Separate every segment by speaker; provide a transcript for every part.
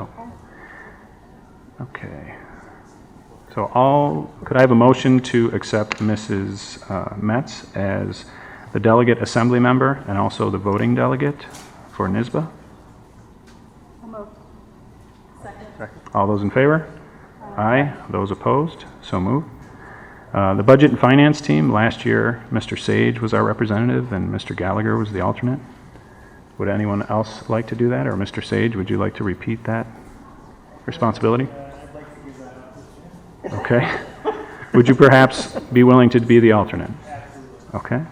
Speaker 1: Oh. Okay. So all, could I have a motion to accept Mrs. uh, Metz as the delegate assembly member and also the voting delegate for NISBA? Second. All those in favor? Aye. Those opposed? So moved. Uh, The Budget and Finance Team, last year, Mr. Sage was our representative and Mr. Gallagher was the alternate. Would anyone else like to do that, or Mr. Sage, would you like to repeat that responsibility? Okay. Would you perhaps be willing to be the alternate? Okay.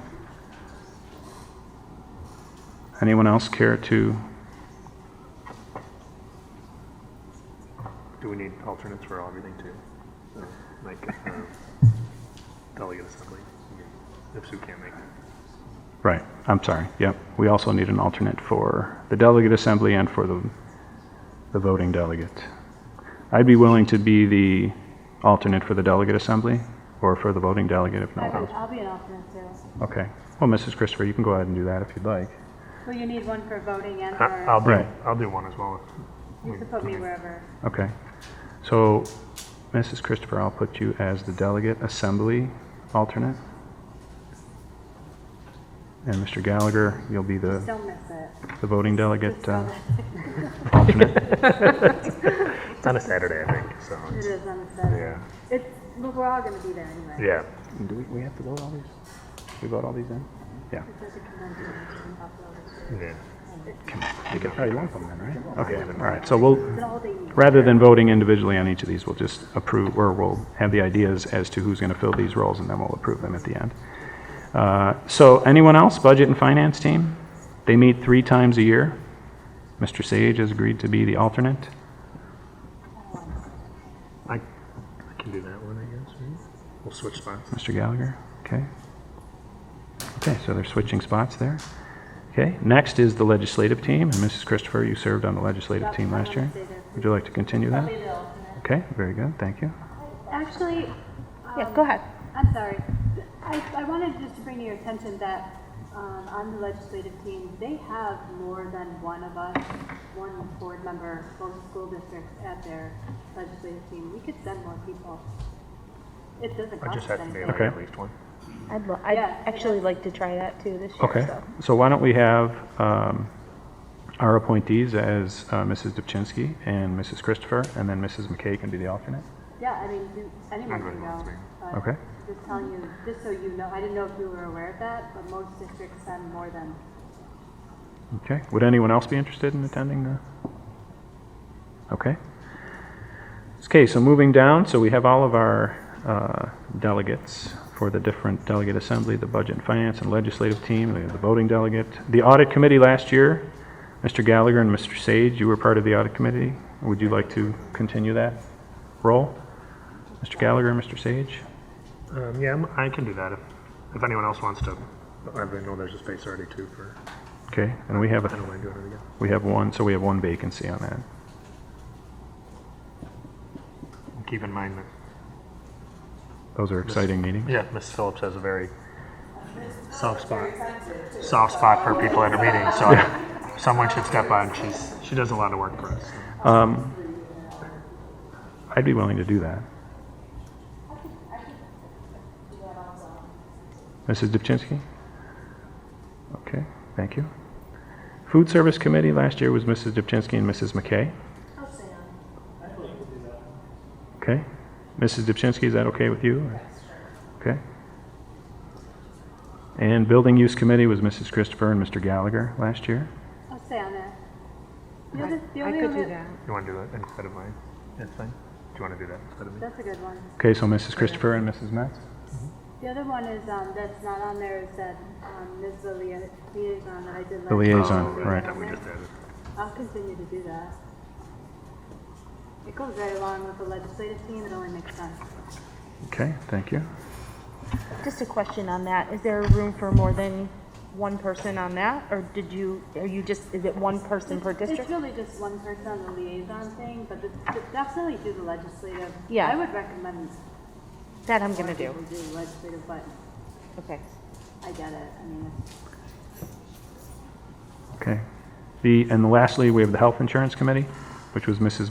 Speaker 1: Anyone else care to,
Speaker 2: Do we need alternates for everything too? So, Like, uh, delegate assembly, if Sue can't make it.
Speaker 1: right, I'm sorry, yep. We also need an alternate for the delegate assembly and for the, the voting delegate. I'd be willing to be the alternate for the delegate assembly or for the voting delegate if no one
Speaker 3: I'll
Speaker 1: else.
Speaker 3: be- I'll be an alternate too.
Speaker 1: Okay. Well, Mrs. Christopher, you can go ahead and do that if you'd like.
Speaker 3: Well, you need one for voting and
Speaker 2: I- I'll
Speaker 3: for,
Speaker 2: do,
Speaker 1: Right.
Speaker 2: I'll do one as well.
Speaker 3: you can put me wherever.
Speaker 1: Okay. So, Mrs. Christopher, I'll put you as the delegate assembly alternate. And Mr. Gallagher, you'll be the,
Speaker 3: Don't miss it.
Speaker 1: the voting delegate
Speaker 3: Don't
Speaker 1: uh,
Speaker 3: miss
Speaker 1: alternate.
Speaker 2: It's on a Saturday, I think, so.
Speaker 3: It It
Speaker 2: it's-
Speaker 3: is on the Saturday.
Speaker 2: Yeah,
Speaker 3: It's, but we're all gonna be there anyway.
Speaker 2: yeah.
Speaker 1: Do we, we have to vote all these? We vote all these in? Yeah.
Speaker 3: It's such a convention, you can upload it.
Speaker 2: yeah.
Speaker 1: You could probably lump them then, right? Okay, all right. So we'll,
Speaker 3: It's an all day meeting.
Speaker 1: rather than voting individually on each of these, we'll just approve, or we'll have the ideas as to who's going to fill these roles, and then we'll approve them at the end. Uh, So anyone else, Budget and Finance Team? They meet three times a year. Mr. Sage has agreed to be the alternate.
Speaker 2: I, I can do that one, I guess. right? We'll switch spots.
Speaker 1: Mr. Gallagher, okay. Okay, so they're switching spots there. Okay, next is the legislative team, and Mrs. Christopher, you served on the legislative team last year. Would you like to continue that? Okay, very good, thank you.
Speaker 3: Actually, um,
Speaker 4: Yeah, go ahead.
Speaker 3: I'm sorry. I, I wanted just to bring to your attention that um, on the legislative team, they have more than one of us, one board member, both school districts at their legislative team. We could send more people. It doesn't
Speaker 2: I
Speaker 3: cost
Speaker 2: just have to be
Speaker 3: anything.
Speaker 2: like at least one.
Speaker 4: I'd, lo- I'd
Speaker 3: Yeah.
Speaker 4: actually like to try that too this year.
Speaker 1: Okay,
Speaker 4: So.
Speaker 1: so why don't we have um, our appointees as uh, Mrs. Dubchinsky and Mrs. Christopher, and then Mrs. McKay can be the alternate?
Speaker 3: Yeah, I mean, you- anyone
Speaker 2: I'm good
Speaker 3: can
Speaker 2: with
Speaker 3: go.
Speaker 2: three.
Speaker 3: but
Speaker 1: Okay.
Speaker 3: Just telling you, just so you know, I didn't know if you were aware of that, but most districts send more than,
Speaker 1: Okay, would anyone else be interested in attending the? Okay. Okay, so moving down, so we have all of our uh, delegates for the different delegate assembly, the budget and finance and legislative team, we have the voting delegate. The audit committee last year, Mr. Gallagher and Mr. Sage, you were part of the audit committee. Would you like to continue that role? Mr. Gallagher and Mr. Sage?
Speaker 2: Um, yeah, I'm- I can do that if, if anyone else wants to. I know there's a space already too for,
Speaker 1: Okay, and we have
Speaker 2: I
Speaker 1: a
Speaker 2: don't mind doing it again.
Speaker 1: we have one, so we have one vacancy on that.
Speaker 2: Keep in mind that,
Speaker 1: Those are exciting meetings.
Speaker 2: yeah, Miss Phillips has a very soft spot, soft spot for people at her meetings. so I- someone should step on. She's, she does a lot of work for us. so.
Speaker 1: Um, I'd be willing to do that. Mrs. Dubchinsky? Okay, thank you. Food Service Committee last year was Mrs. Dubchinsky and Mrs. McKay. Okay. Mrs. Dubchinsky, is that okay with you? or- Okay. And Building Use Committee was Mrs. Christopher and Mr. Gallagher last year.
Speaker 3: I'll stay on that. The other- the
Speaker 4: I
Speaker 3: only
Speaker 4: could do
Speaker 3: other-
Speaker 4: that.
Speaker 2: You want to do that instead of mine? That's fine. Do you want to do that instead of me?
Speaker 3: That's a good one.
Speaker 1: Okay, so Mrs. Christopher and Mrs. Metz?
Speaker 3: The other one is, um, that's not on there is that, um, Ms. Lia- liaison that I did last.
Speaker 1: The liaison,
Speaker 2: Oh,
Speaker 1: right.
Speaker 2: That we just added.
Speaker 3: I'll continue to do that. It goes right along with the legislative team, it only makes sense.
Speaker 1: Okay, thank you.
Speaker 4: Just a question on that. Is there room for more than one person on that, or did you? Are you just? Is it one person per
Speaker 3: It's
Speaker 4: district?
Speaker 3: really just one person on the liaison thing, but it's- but definitely do the legislative.
Speaker 4: Yeah.
Speaker 3: I would recommend
Speaker 4: That I'm gonna do.
Speaker 3: people do the legislative, but
Speaker 4: Okay.
Speaker 3: I get it, I mean, it's-
Speaker 1: Okay. The, and lastly, we have the Health Insurance Committee, which was Mrs.